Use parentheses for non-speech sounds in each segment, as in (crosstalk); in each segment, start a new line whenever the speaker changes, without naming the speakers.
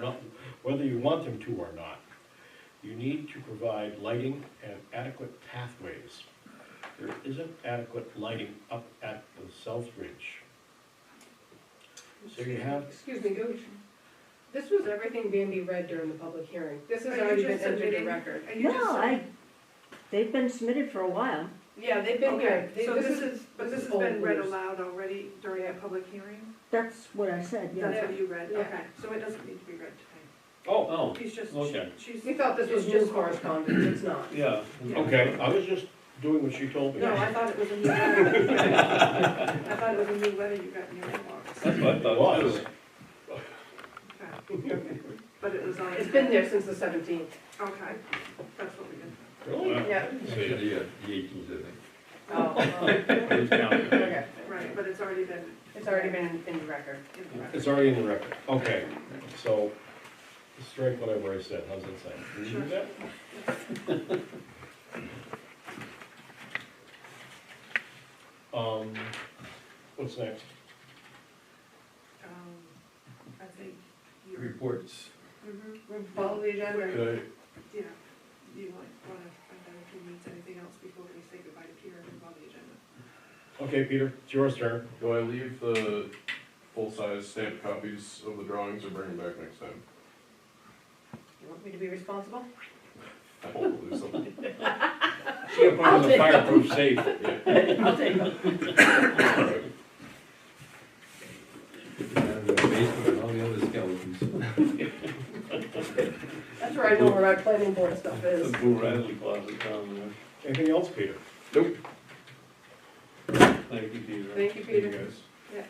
well, (laughs) whether you want them to or not, you need to provide lighting and adequate pathways. There isn't adequate lighting up at the South Ridge. So you have-
Excuse me, go, this was everything Bambi read during the public hearing. This has already been entered in record.
Are you just
No, I,
submitting?
they've been submitted for a while.
Yeah, they've been here.
Okay, they-
So
this
this
is-
is, but
this
this
is
has been
old
read
news.
aloud already during the
Yeah.
public hearing?
That's what I said, yeah.
That's what you read,
Yeah.
okay. So it doesn't need to be read tonight.
Oh,
Oh,
He's just,
Okay.
she's.
We thought this was just correspondence, it's not.
yeah.
Oh.
okay, I was just doing what she told me.
No, I thought it was a
(laughs)
new letter. I thought it was a new letter you got in your inbox.
That's what I
It
thought too.
was.
Okay. But it was on.
It's been there since the seventeenth.
Okay, that's what we did.
Yeah.
Yeah, the eighteenth, I
Oh, (laughs) oh, okay.
Right, but it's already been.
It's already been in the record.
in the record.
It's already in the record, okay, so strike what I've already said, how's that sound? Can you do that? (laughs) Um, what's next?
Um, I think
think.
you're.
Reports.
Mhm.
Follow the agenda.
Could I-
Yeah, you might want to find out if he needs anything else before we say goodbye to Peter and move on to the agenda.
Okay, Peter, it's your turn.
Do I leave the full-size stamped copies of the drawings or bring them back next time?
You want me to be responsible?
I hope we'll lose something.
She put it in the fireproof safe.
Yeah.
(laughs) I'll take it.
Down in the basement and all the other skeletons.
That's where I know where our planning board stuff
The
(laughs) is.
Boo Radley closet down
Anything else, Peter?
there. Thank you, Peter.
Thank you, Peter.
guys.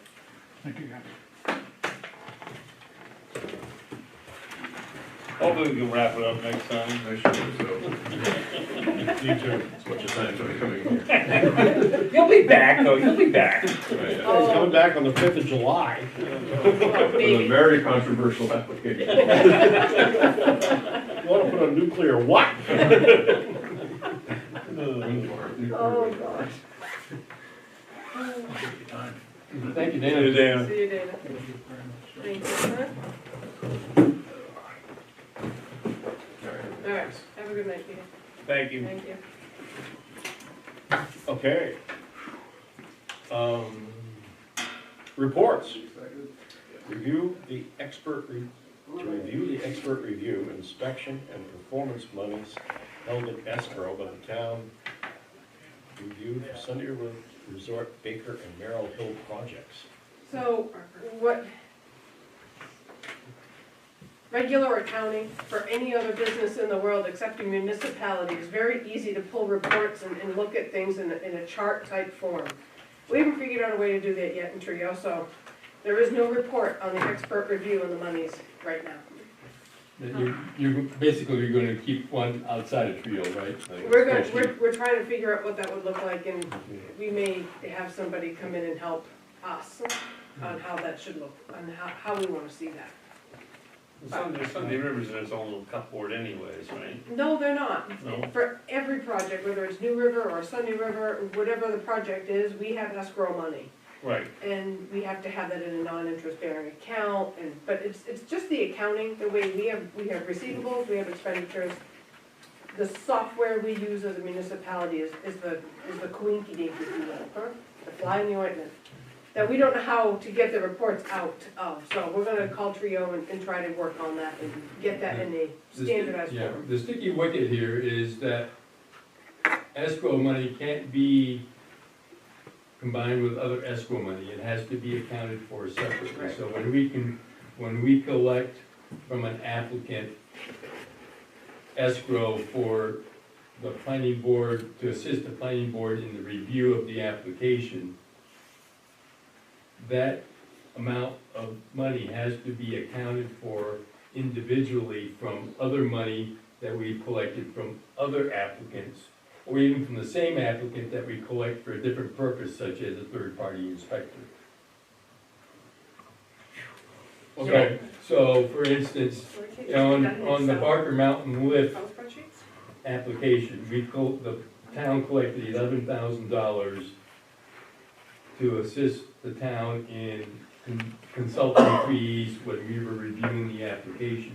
Hopefully we can wrap it up next time.
I should, so,
You too.
as much as I'm coming here.
(laughs) You'll be back, though, you'll be back.
Right, yeah.
He's coming
Oh,
back on the fifth of July.
oh,
With a
baby.
very controversial application.
You wanna put a nuclear what?
Oh, gosh. (laughs)
Thank you,
Later,
Dana.
Dan.
See you, Dana. Thank you. Huh? All right, have a good night, Peter.
Thank you.
Thank you.
Okay. Um, reports. Review the expert, re- to review the expert review, inspection, and performance monies held in escrow by the town. Review for Sunday Ro- Resort Baker and Merrill Hill projects.
So, what? Regular accounting for any other business in the world except a municipality is very easy to pull reports and, and look at things in a, in a chart type form. We haven't figured out a way to do that yet in Trio, so there is no report on the expert review and the monies right now.
You're, you're basically, you're gonna keep one outside of Trio, right? Like,
We're gonna,
especially-
we're, we're trying to figure out what that would look like and we may have somebody come in and help us on how that should look, on how, how we wanna see that.
Sunday, Sunday River's in its own little cupboard anyways, right?
No, they're not.
No?
For every project, whether it's New River or Sunny River, whatever the project is, we have escrow money.
Right.
And we have to have that in a non-interest bearing account and, but it's, it's just the accounting, the way we have, we have receivables, we have expenditures. The software we use as a municipality is, is the, is the coinky dink, if you will, huh? the fly in the ointment. That we don't know how to get the reports out of, so we're gonna call Trio and, and try to work on that and get that in a
The sti-
standardized
Yeah,
form.
the sticky wicket here is that escrow money can't be combined with other escrow money. It has to be accounted for separately.
Right.
So when we can, when we collect from an applicant escrow for the planning board, to assist the planning board in the review of the application, that amount of money has to be accounted for individually from other money that we've collected from other applicants, or even from the same applicant that we collect for a different purpose, such as a third-party inspector.
Okay.
So, for instance,
So we can't just put
on,
that in
on the
Excel-
Barker Mountain lift
Excel spreadsheets?
application, we col, the town collected eleven thousand dollars to assist the town in con- consulting fees when we were reviewing the application.